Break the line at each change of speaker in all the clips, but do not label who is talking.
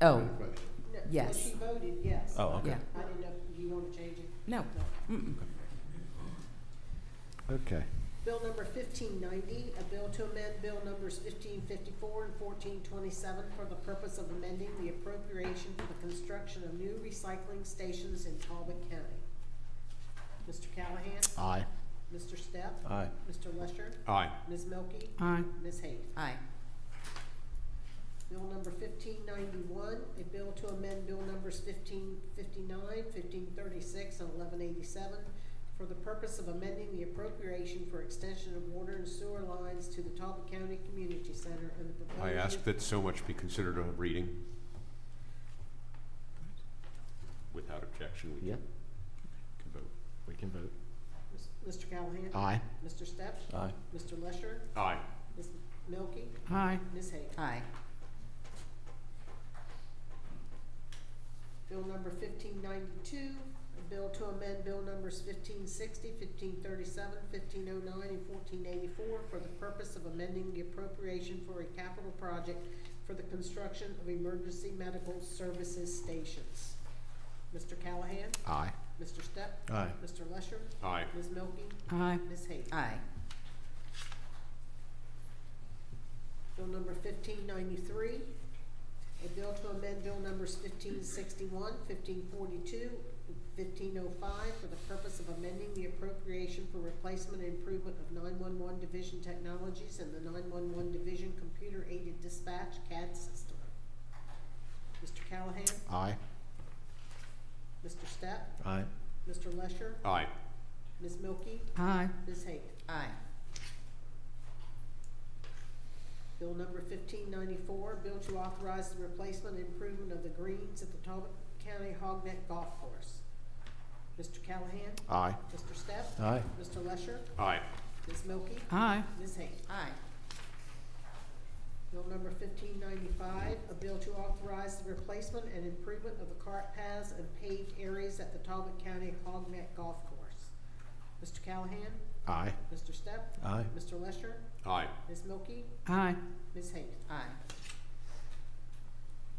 Oh,
Question.
No, well,
Yes.
She voted yes.
Oh, okay.
yeah,
I didn't know, do you want to change it?
no. Mm-mm.
Okay.
Bill number fifteen ninety, a bill to amend bill numbers fifteen fifty-four and fourteen twenty-seven for the purpose of amending the appropriation for the construction of new recycling stations in Talbot County. Mr. Callahan?
Aye.
Mr. Step?
Aye.
Mr. Lusher?
Aye.
Ms. Milky?
Aye.
Ms. Hayes?
Aye,
Bill number fifteen ninety-one, a bill to amend bill numbers fifteen fifty-nine, fifteen thirty-six, and eleven eighty-seven for the purpose of amending the appropriation for extension of water and sewer lines to the Talbot County Community Center and the
I
proposed.
ask that so much be considered a reading. Without objection, we
Yep.
can can vote.
We can vote.
Mr. Callahan?
Aye.
Mr. Steps?
Aye.
Mr. Lusher?
Aye.
Ms. Milky?
Aye.
Ms. Hayes?
aye,
Bill number fifteen ninety-two, a bill to amend bill numbers fifteen sixty, fifteen thirty-seven, fifteen oh nine, and fourteen eighty-four for the purpose of amending the appropriation for a capital project for the construction of emergency medical services stations. Mr. Callahan?
Aye.
Mr. Step?
Aye.
Mr. Lusher?
Aye.
Ms. Milky?
aye,
Ms. Hayes?
aye,
Bill number fifteen ninety-three, a bill to amend bill numbers fifteen sixty-one, fifteen forty-two, fifteen oh five for the purpose of amending the appropriation for replacement and improvement of nine-one-one division technologies and the nine-one-one division computer-aided dispatch CAD system. Mr. Callahan?
Aye.
Mr. Step?
Aye.
Mr. Lesher?
Aye.
Ms. Milky?
aye,
Ms. Hayes?
aye,
Bill number fifteen ninety-four, bill to authorize the replacement and improvement of the greens at the Talbot County Hogneck Golf Course. Mr. Callahan?
Aye.
Mr. Steph?
Aye.
Mr. Lesher?
Aye.
Ms. Milky?
Aye.
Ms. Hayes?
aye,
Bill number fifteen ninety-five, a bill to authorize the replacement and improvement of the cart paths and paved areas at the Talbot County Hogneck Golf Course. Mr. Callahan?
Aye.
Mr. Steph?
Aye.
Mr. Lesher?
Aye.
Ms. Milky?
Aye.
Ms. Hayes?
aye,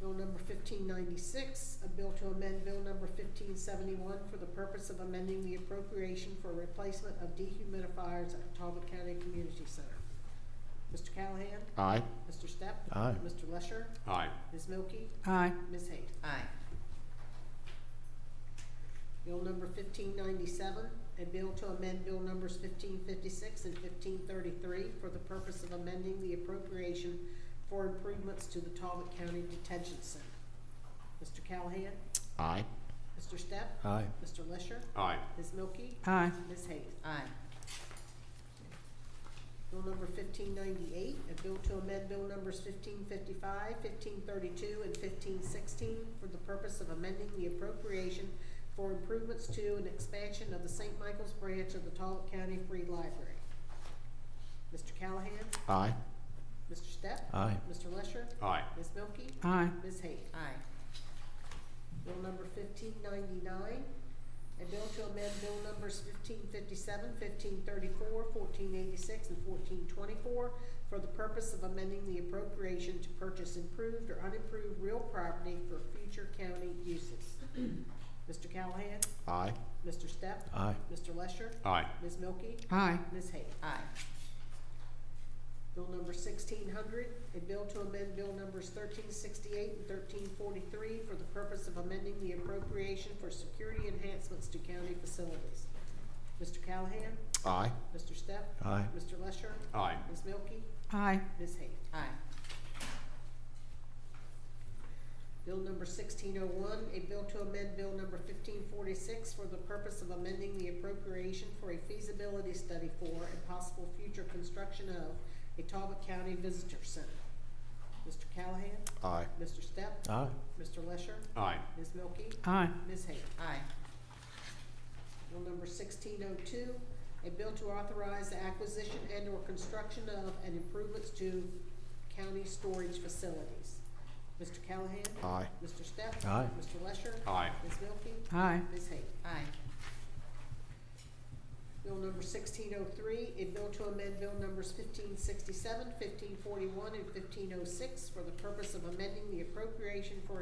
Bill number fifteen ninety-six, a bill to amend bill number fifteen seventy-one for the purpose of amending the appropriation for replacement of dehumidifiers at Talbot County Community Center. Mr. Callahan?
Aye.
Mr. Step?
Aye.
Mr. Lesher?
Aye.
Ms. Milky?
Aye.
Ms. Hayes?
aye,
Bill number fifteen ninety-seven, a bill to amend bill numbers fifteen fifty-six and fifteen thirty-three for the purpose of amending the appropriation for improvements to the Talbot County Detention Center. Mr. Callahan?
Aye.
Mr. Step?
Aye.
Mr. Lesher?
Aye.
Ms. Milky?
Aye.
Ms. Hayes?
aye,
Bill number fifteen ninety-eight, a bill to amend bill numbers fifteen fifty-five, fifteen thirty-two, and fifteen sixteen for the purpose of amending the appropriation for improvements to and expansion of the St. Michael's branch of the Talbot County Free Library. Mr. Callahan?
Aye.
Mr. Step?
Aye.
Mr. Lesher?
Aye.
Ms. Milky?
Aye.
Ms. Hayes?
aye,
Bill number fifteen ninety-nine, a bill to amend bill numbers fifteen fifty-seven, fifteen thirty-four, fourteen eighty-six, and fourteen twenty-four for the purpose of amending the appropriation to purchase improved or unimproved real property for future county uses. Mr. Callahan?
Aye.
Mr. Step?
Aye.
Mr. Lesher?
Aye.
Ms. Milky?
Aye.
Ms. Hayes?
aye,
Bill number sixteen hundred, a bill to amend bill numbers thirteen sixty-eight and thirteen forty-three for the purpose of amending the appropriation for security enhancements to county facilities. Mr. Callahan?
Aye.
Mr. Step?
Aye.
Mr. Lesher?
Aye.
Ms. Milky?
Aye.
Ms. Hayes?
aye,
Bill number sixteen oh one, a bill to amend bill number fifteen forty-six for the purpose of amending the appropriation for a feasibility study for and possible future construction of a Talbot County Visitor Center. Mr. Callahan?
Aye.
Mr. Step?
Aye.
Mr. Lesher?
Aye.
Ms. Milky?
Aye.
Ms. Hayes?
aye,
Bill number sixteen oh two, a bill to authorize the acquisition and or construction of and improvements to county storage facilities. Mr. Callahan?
Aye.
Mr. Step?
Aye.
Mr. Lesher?
Aye.
Ms. Milky?
Aye.
Ms. Hayes?
aye,
Bill number sixteen oh three, a bill to amend bill numbers fifteen sixty-seven, fifteen forty-one, and fifteen oh six for the purpose of amending the appropriation for